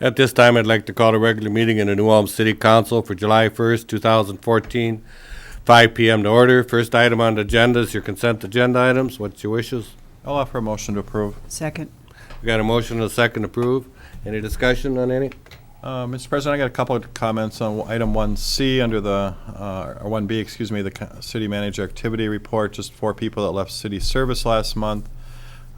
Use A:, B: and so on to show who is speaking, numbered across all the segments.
A: At this time, I'd like to call a regular meeting in the New Ulm City Council for July 1st, 2014, 5 PM to order. First item on the agenda is your consent agenda items. What's your wishes?
B: I'll offer a motion to approve.
C: Second.
A: We got a motion and a second to approve. Any discussion on any?
B: Uh, Mr. President, I got a couple of comments on item 1C under the, uh, or 1B, excuse me, the co- city manager activity report, just four people that left city service last month.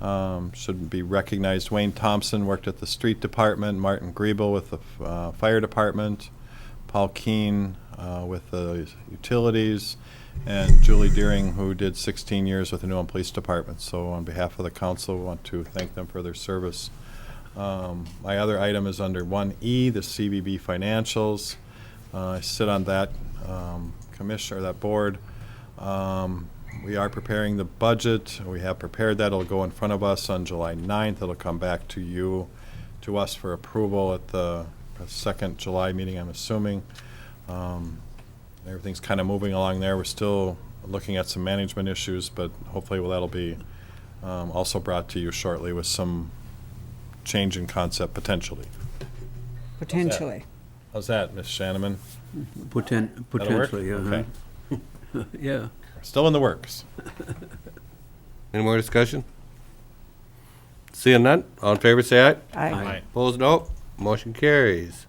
B: um, Should be recognized. Wayne Thompson worked at the street department, Martin Griebel with the uh, fire department, Paul Keen uh, with the utilities, and Julie Deering, who did 16 years with the New Ulm Police Department. So on behalf of the council, we want to thank them for their service. Um, My other item is under 1E, the CBB financials. Uh, I sit on that um, commission, or that board. Um, We are preparing the budget. We have prepared that. It'll go in front of us on July 9th. It'll come back to you, to us for approval at the second July meeting, I'm assuming. Um, Everything's kind of moving along there. We're still looking at some management issues, but hopefully well, that'll be um, also brought to you shortly with some change in concept potentially.
C: Potentially.
B: How's that, Ms. Shanaman?
D: Poten-
B: That'll work?
D: Potentially, uh-huh.
B: Okay.
D: yeah.
B: Still in the works.
A: Any more discussion? Seeing none, all in favor, say aye.
C: Aye.
A: Opposed, no. Motion carries.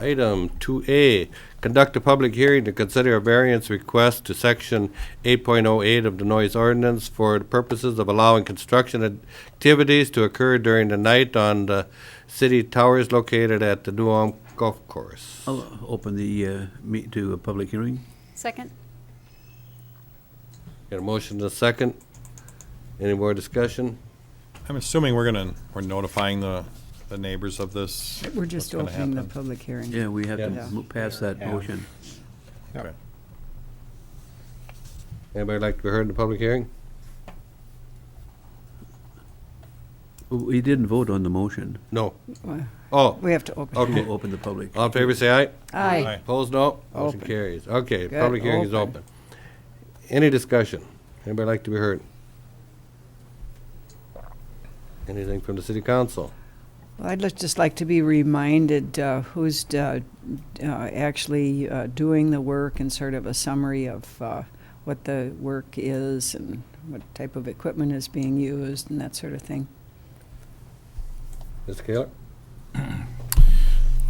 A: Item 2A, conduct a public hearing to consider a variance request to Section 8.08 of the noise ordinance for the purposes of allowing construction activities to occur during the night on the city towers located at the New Ulm Golf Course.
D: I'll open the uh, meet to a public hearing.
E: Second?
A: Got a motion and a second? Any more discussion?
B: I'm assuming we're gonna, we're notifying the, the neighbors of this.
C: We're just
B: what's gonna
C: opening the
B: happen.
C: public hearing.
D: Yeah, we have to
C: Yeah.
D: mo- pass that motion.
B: Okay.
A: Anybody like to be heard in the public hearing?
D: We didn't vote on the motion
A: No.
C: Well,
A: Oh,
C: We have to open.
A: Okay.
D: to open the public.
A: all in favor, say aye.
B: Aye.
C: Aye.
A: Opposed, no? Motion
C: Open.
A: carries. Okay,
C: Good,
A: public hearing is
C: open.
A: open. Any discussion? Anybody like to be heard? Anything from the city council?
C: Well, I'd li- just like to be reminded uh, who's uh, uh, actually uh, doing the work and sort of a summary of uh, what the work is and what type of equipment is being used and that sort of thing.
A: Mr. Kaler?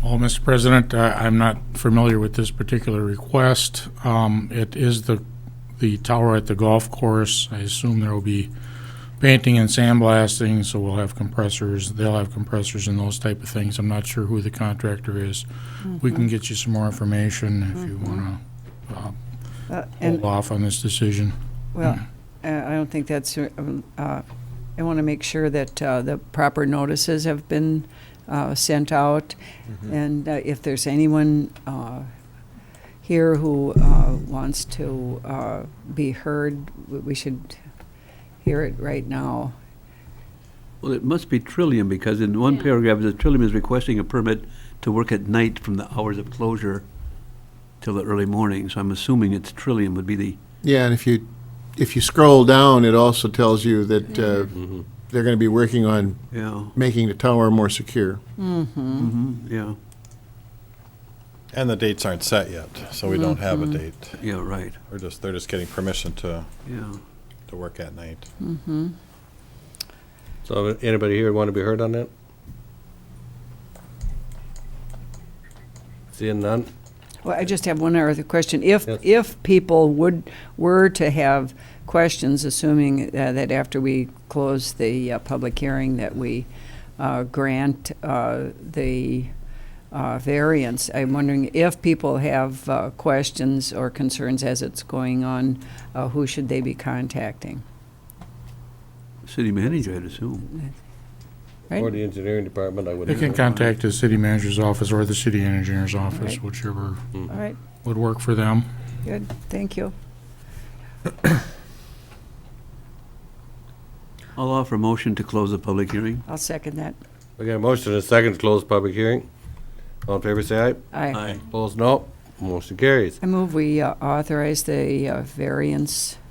F: Well, Mr. President, I- I'm not familiar with this particular request. Um, It is the, the tower at the golf course. I assume there will be painting and sandblasting, so we'll have compressors, they'll have compressors and those type of things. I'm not sure who the contractor is. We
C: Mm-hmm.
F: can get you some more information if you want
C: Uh,
F: to
C: Mm-hmm. And
F: hold off on this decision.
C: Well, I I don't think that's, uh, um, uh, I want to make sure that uh, the proper notices have been uh, sent out, and uh, if there's anyone uh, here who uh, wants to uh, be heard, w- we should hear it right now.
D: Well, it must be Trillium, because in one
E: Yeah.
D: paragraph, the Trillium is requesting a permit to work at night from the hours of closure till the early morning, so I'm assuming it's Trillium would be the,
G: Yeah, and if you, if you scroll down, it also tells you that uh, they're going to be working on
D: yeah,
G: making the tower more secure.
D: mhm, yeah,
B: And the dates aren't set yet, so we don't have a
C: Mm-hmm.
B: date.
D: yeah, right,
B: We're just, they're just getting permission to,
D: yeah.
B: to work at night.
A: So anybody here want to be heard on that? Seeing none?
C: Well, I just have one other question. If,
A: Yes.
C: if people would, were to have questions, assuming uh, that after we close the uh, public hearing, that we uh, grant uh, the uh, variance, I'm wondering if people have uh, questions or concerns as it's going on, uh, who should they be contacting?
D: City manager, I'd assume.
C: Right.
A: Or the engineering department, I would.
F: They can
A: assume.
F: contact the city manager's office or the city engineer's office,
C: Right.
F: whichever
C: All right,
F: would work for them.
C: good, thank you.
D: I'll offer a motion to close the public hearing.
C: I'll second that.
A: We got a motion and a second to close public hearing. All in favor, say aye.
C: Aye.
A: Opposed, no? Motion carries.
C: I move we uh, authorize the uh, variance